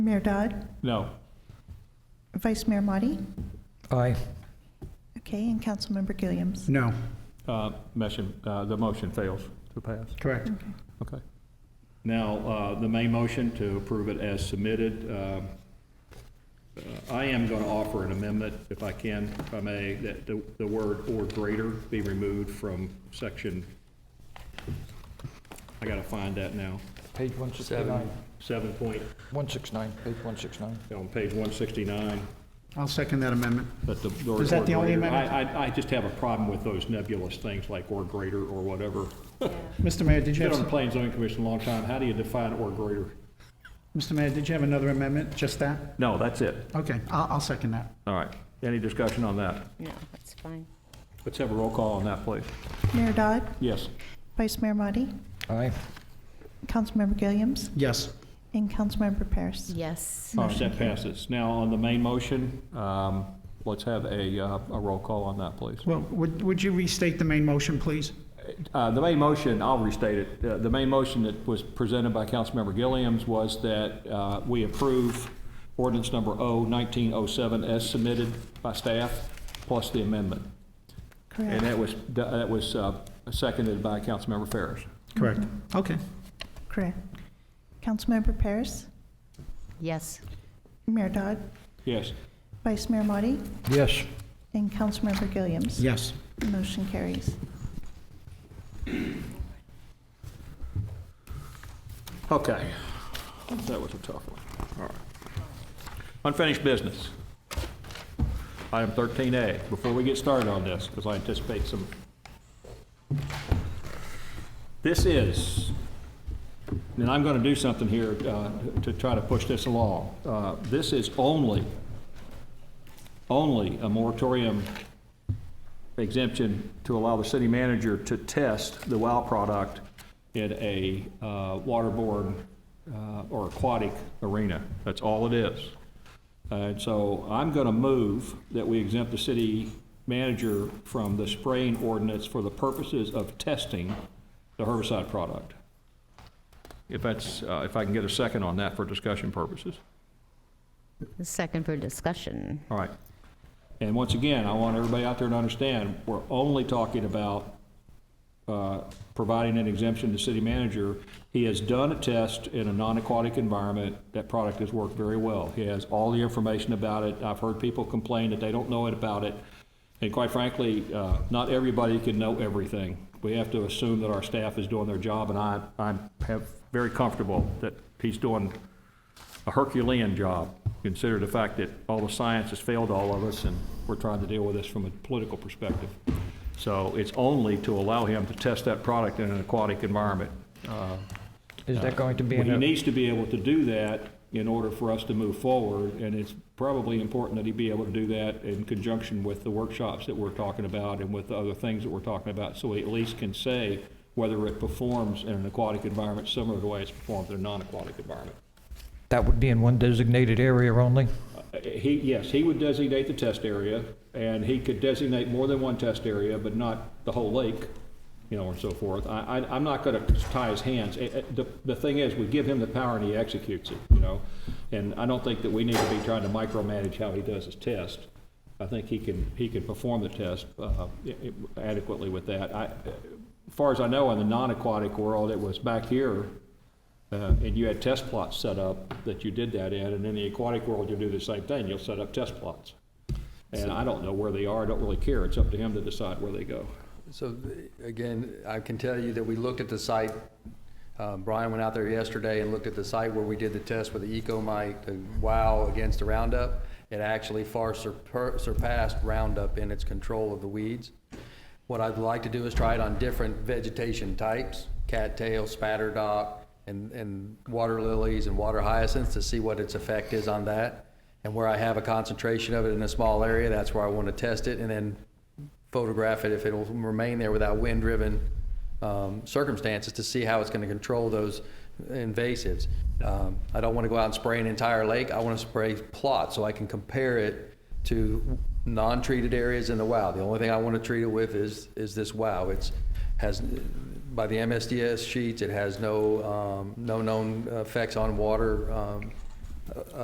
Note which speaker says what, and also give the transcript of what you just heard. Speaker 1: Mayor Dodd,
Speaker 2: No.
Speaker 1: Vice Mayor Motti,
Speaker 3: Aye.
Speaker 1: okay, and Councilmember Gilliams.
Speaker 4: No,
Speaker 2: Uh, Motion, uh, the motion fails to pass.
Speaker 4: correct.
Speaker 2: Okay.
Speaker 5: Now, uh, the main motion to approve it as submitted, uh, uh, I am going to offer an amendment, if I can, if I may, that the the word "or greater" be removed from section, I got to find that now,
Speaker 3: Page 169.
Speaker 5: 7 point,
Speaker 3: 169, page 169.
Speaker 5: on page 169.
Speaker 4: I'll second that amendment.
Speaker 5: But the.
Speaker 4: Is that the only
Speaker 5: or greater-
Speaker 4: amendment?
Speaker 5: I, I, I just have a problem with those nebulous things like "or greater" or whatever.
Speaker 4: Mr. Mayor, did you
Speaker 5: Been on the
Speaker 4: have,
Speaker 5: Plains Zoning Commission a long time, how do you define "or greater"?
Speaker 4: Mr. Mayor, did you have another amendment, just that?
Speaker 2: No, that's it.
Speaker 4: Okay, I'll, I'll second that.
Speaker 2: All right. Any discussion on that?
Speaker 6: No, that's fine.
Speaker 2: Let's have a roll call on that, please.
Speaker 1: Mayor Dodd,
Speaker 2: Yes.
Speaker 1: Vice Mayor Motti,
Speaker 3: Aye.
Speaker 1: Councilmember Gilliams,
Speaker 4: Yes,
Speaker 1: and Councilmember Paris.
Speaker 6: Yes.
Speaker 5: All right, that passes. Now, on the main motion, um,
Speaker 2: Let's have a, uh, a roll call on that, please.
Speaker 4: well, would, would you restate the main motion, please?
Speaker 2: Uh, The main motion, I'll restate it, Uh, the main motion that was presented by Councilmember Gilliams was that uh, we approve ordinance number O-1907 as submitted by staff, plus the amendment. And
Speaker 1: Correct.
Speaker 2: that was, that was uh, seconded by Councilmember Ferris.
Speaker 4: Correct. Okay,
Speaker 1: Correct. Councilmember Paris,
Speaker 6: Yes.
Speaker 1: Mayor Dodd,
Speaker 2: Yes.
Speaker 1: Vice Mayor Motti,
Speaker 3: Yes.
Speaker 1: and Councilmember Gilliams.
Speaker 4: yes.
Speaker 1: Motion carries.
Speaker 2: Okay. That was a tough one. All right. Unfinished business. Item 13A, before we get started on this, because I anticipate some. This is, and I'm going to do something here uh, to try to push this along. Uh, This is only, only a moratorium exemption to allow the city manager to test the WOW product in a uh, waterborne uh, or aquatic arena. That's all it is. And so I'm going to move that we exempt the city manager from the spraying ordinance for the purposes of testing the herbicide product. If that's, uh, if I can get a second on that for discussion purposes.
Speaker 6: Second for discussion.
Speaker 2: All right. And once again, I want everybody out there to understand, we're only talking about uh, providing an exemption to city manager. He has done a test in a non-aquatic environment. That product has worked very well. He has all the information about it. I've heard people complain that they don't know it about it. And quite frankly, uh, not everybody can know everything. We have to assume that our staff is doing their job, and I, I'm have- very comfortable that he's doing a Herculean job, consider the fact that all the science has failed all of us, and we're trying to deal with this from a political perspective. So it's only to allow him to test that product in an aquatic environment. Uh,
Speaker 3: Is that going to be
Speaker 2: He
Speaker 3: in a,
Speaker 2: needs to be able to do that in order for us to move forward, and it's probably important that he be able to do that in conjunction with the workshops that we're talking about and with the other things that we're talking about, so he at least can say whether it performs in an aquatic environment similar to the way it's performed in a non-aquatic environment.
Speaker 3: that would be in one designated area only?
Speaker 2: He, yes, he would designate the test area, and he could designate more than one test area, but not the whole lake, you know, and so forth. I, I, I'm not gonna tie his hands. Eh, eh, The, the thing is, we give him the power and he executes it, you know? And I don't think that we need to be trying to micromanage how he does his test. I think he can, he can perform the test uh, i- i- adequately with that. I, as far as I know, in the non-aquatic world, it was back here, uh, and you had test plots set up that you did that in, and in the aquatic world, you'll do the same thing, you'll set up test plots. And I don't know where they are, I don't really care, it's up to him to decide where they go.
Speaker 7: So th- again, I can tell you that we looked at the site. Uh, Brian went out there yesterday and looked at the site where we did the test with the Ecomite, the WOW against the Roundup. It actually far surper- surpassed Roundup in its control of the weeds. What I'd like to do is try it on different vegetation types, cattail, spatterdock, and, and water lilies and water hyacinths to see what its effect is on that. And where I have a concentration of it in a small area, that's where I want to test it and then photograph it if it'll remain there without wind-driven um, circumstances to see how it's going to control those invasives. Um, I don't want to go out and spray an entire lake. I want to spray plots so I can compare it to non-treated areas in the WOW. The only thing I want to treat it with is, is this WOW. It's, has, by the MSDS sheets, it has no, um, no known effects on water um, uh,